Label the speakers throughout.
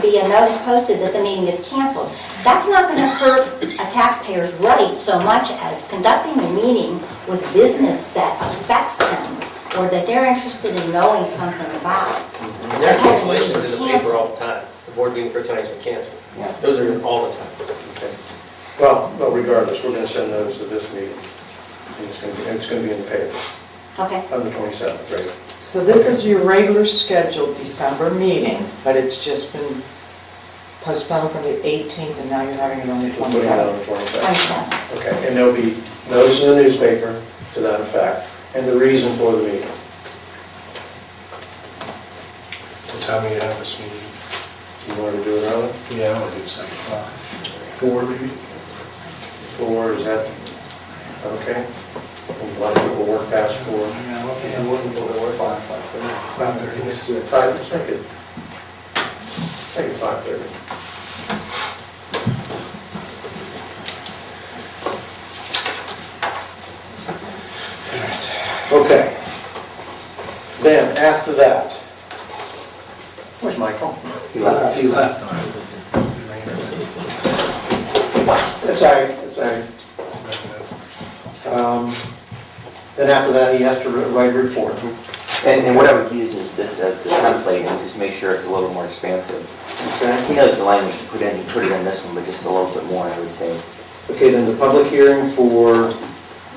Speaker 1: be a notice posted that the meeting is canceled. That's not going to hurt a taxpayer's right so much as conducting a meeting with business that affects them or that they're interested in knowing something about.
Speaker 2: There's cancellations in the paper all the time. The board meeting for tonight's been canceled. Those are all the time.
Speaker 3: Well, but regardless, we're going to send notice of this meeting. And it's going to be, and it's going to be in the paper
Speaker 1: Okay,
Speaker 3: on the 27th, right?
Speaker 4: So this is your regular scheduled December meeting, but it's just been postponed from the 18th, and now you're having it on the
Speaker 3: We'll Put it out on
Speaker 4: 27th.
Speaker 3: the
Speaker 1: I
Speaker 3: 27th.
Speaker 1: see.
Speaker 3: Okay, and there'll be notice in the newspaper to that effect, and the reason for the meeting.
Speaker 5: What time do you have this meeting?
Speaker 3: You want to do it early?
Speaker 5: Yeah, I want to do seven o'clock. Four maybe?
Speaker 3: Four, is that, okay? A lot of people work past four.
Speaker 5: Yeah, what will it work on? Five thirty. Six.
Speaker 3: Five, let's make it, make it 5:30. Okay. Then, after that, where's Michael?
Speaker 5: He left. He left on it.
Speaker 3: Uh, It's all right, it's all right. Um, Then after that, he has to write a report.
Speaker 6: And, and what I would use is this as the template and just make sure it's a little more expansive.
Speaker 3: Okay.
Speaker 6: He knows the language to put in, he put it in this one, but just a little bit more, I would say.
Speaker 3: Okay, then the public hearing for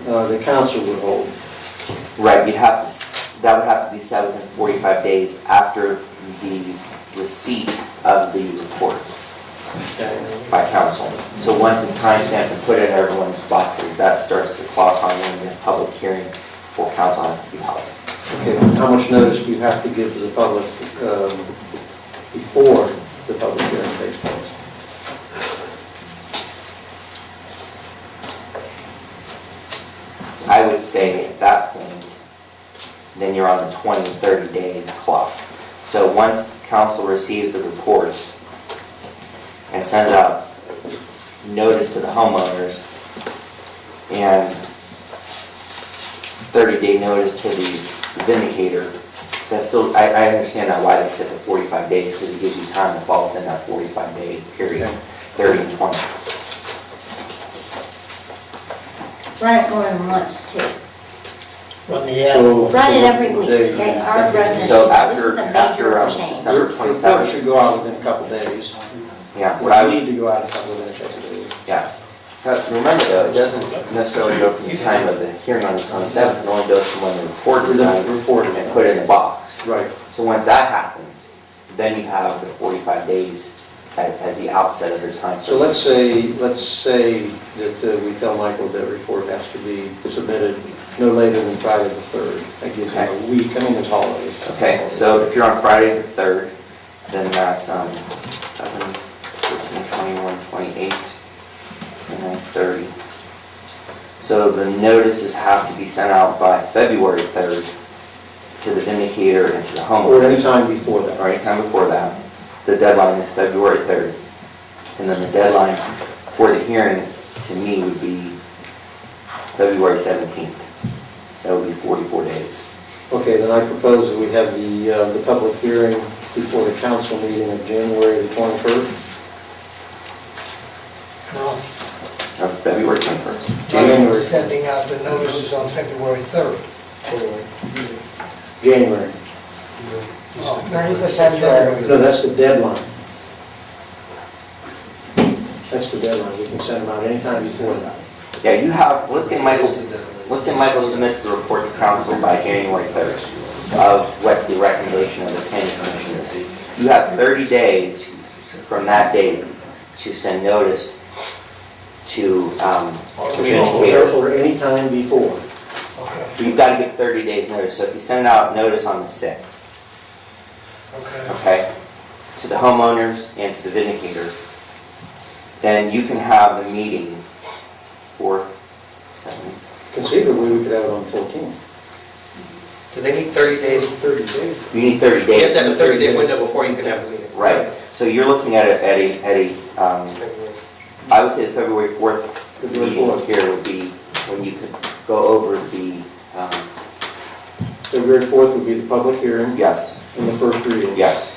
Speaker 3: uh, the council would hold.
Speaker 6: Right, you'd have to, s- that would have to be set within 45 days after the receipt of the report
Speaker 3: Okay.
Speaker 6: by council. So once it's timestamped and put in everyone's boxes, that starts the clock on when the public hearing for council has to be held.
Speaker 3: Okay, how much notice do you have to give to the public um, before the public hearing takes place?
Speaker 6: I would say at that point, then you're on the 20, 30-day clock. So once council receives the report and sends out notice to the homeowners and 30-day notice to the vindicator, that's still, I, I understand now why they set the 45 days, because it gives you time to fall within that 45-day period, 30 and 20.
Speaker 1: Run it more than once too.
Speaker 5: Run the
Speaker 3: So-
Speaker 1: Run it every week. They are residents.
Speaker 6: So
Speaker 1: This
Speaker 6: after,
Speaker 1: is a
Speaker 6: after
Speaker 1: major
Speaker 6: um,
Speaker 1: change.
Speaker 6: December
Speaker 3: Your
Speaker 6: 27th.
Speaker 3: report should go out within a couple days.
Speaker 6: Yeah, what I
Speaker 3: Well, you
Speaker 6: would,
Speaker 3: need to go out a couple of days, I believe.
Speaker 6: yeah. But remember though, it doesn't necessarily go from the time of the hearing on the twenty-seventh, it only goes from when the report is
Speaker 3: The
Speaker 6: done
Speaker 3: report
Speaker 6: and put in the box.
Speaker 3: Right,
Speaker 6: So once that happens, then you have the forty-five days as, as the outset of your time.
Speaker 3: so let's say, let's say that uh, we tell Michael that report has to be submitted no later than Friday the 3rd. That gives him a week, I mean, it's holidays.
Speaker 6: Okay, so if you're on Friday the third, then that's, um, seven, fourteen, twenty-one, twenty-eight, and then thirty. So the notices have to be sent out by February third to the vindicator and to the
Speaker 3: Or any
Speaker 6: homeowner,
Speaker 3: time before that.
Speaker 6: or anytime before that. The deadline is February third. And then the deadline for the hearing, to me, would be February seventeenth. That would be forty-four days.
Speaker 3: Okay, then I propose that we have the, uh, the public hearing before the council meeting of January the 21st.
Speaker 7: Well,
Speaker 6: Uh, February twenty-first.
Speaker 7: I'm
Speaker 3: January.
Speaker 7: sending out the notices on February 3rd.
Speaker 3: January.
Speaker 4: Notice of
Speaker 7: Oh.
Speaker 4: February.
Speaker 3: No, that's the deadline. That's the deadline, we can send them out anytime before that.
Speaker 6: Yeah, you have, let's say Michael, let's say Michael submits the report to council by January 3rd of what the recommendation of the planning commission is. You have 30 days from that date to send notice to um,
Speaker 3: Or
Speaker 6: communicators.
Speaker 3: or anytime before.
Speaker 7: Okay,
Speaker 6: You've got to give 30 days notice, so if you send out notice on the 6th,
Speaker 7: okay.
Speaker 6: okay, to the homeowners and to the vindicator, then you can have the meeting for, seven,
Speaker 3: Conceivably, we could have it on 14.
Speaker 2: Do they need 30 days?
Speaker 3: 30 days.
Speaker 6: you need 30
Speaker 2: You
Speaker 6: days.
Speaker 2: have to have a 30-day window before you can have the meeting.
Speaker 6: Right, so you're looking at a, at a, at a, um, I would say the February 4th
Speaker 3: February
Speaker 6: meeting
Speaker 3: 4th.
Speaker 6: here would be when you could go over the, um,
Speaker 3: February 4th would be the public hearing
Speaker 6: yes,
Speaker 3: and the first reading.
Speaker 6: yes.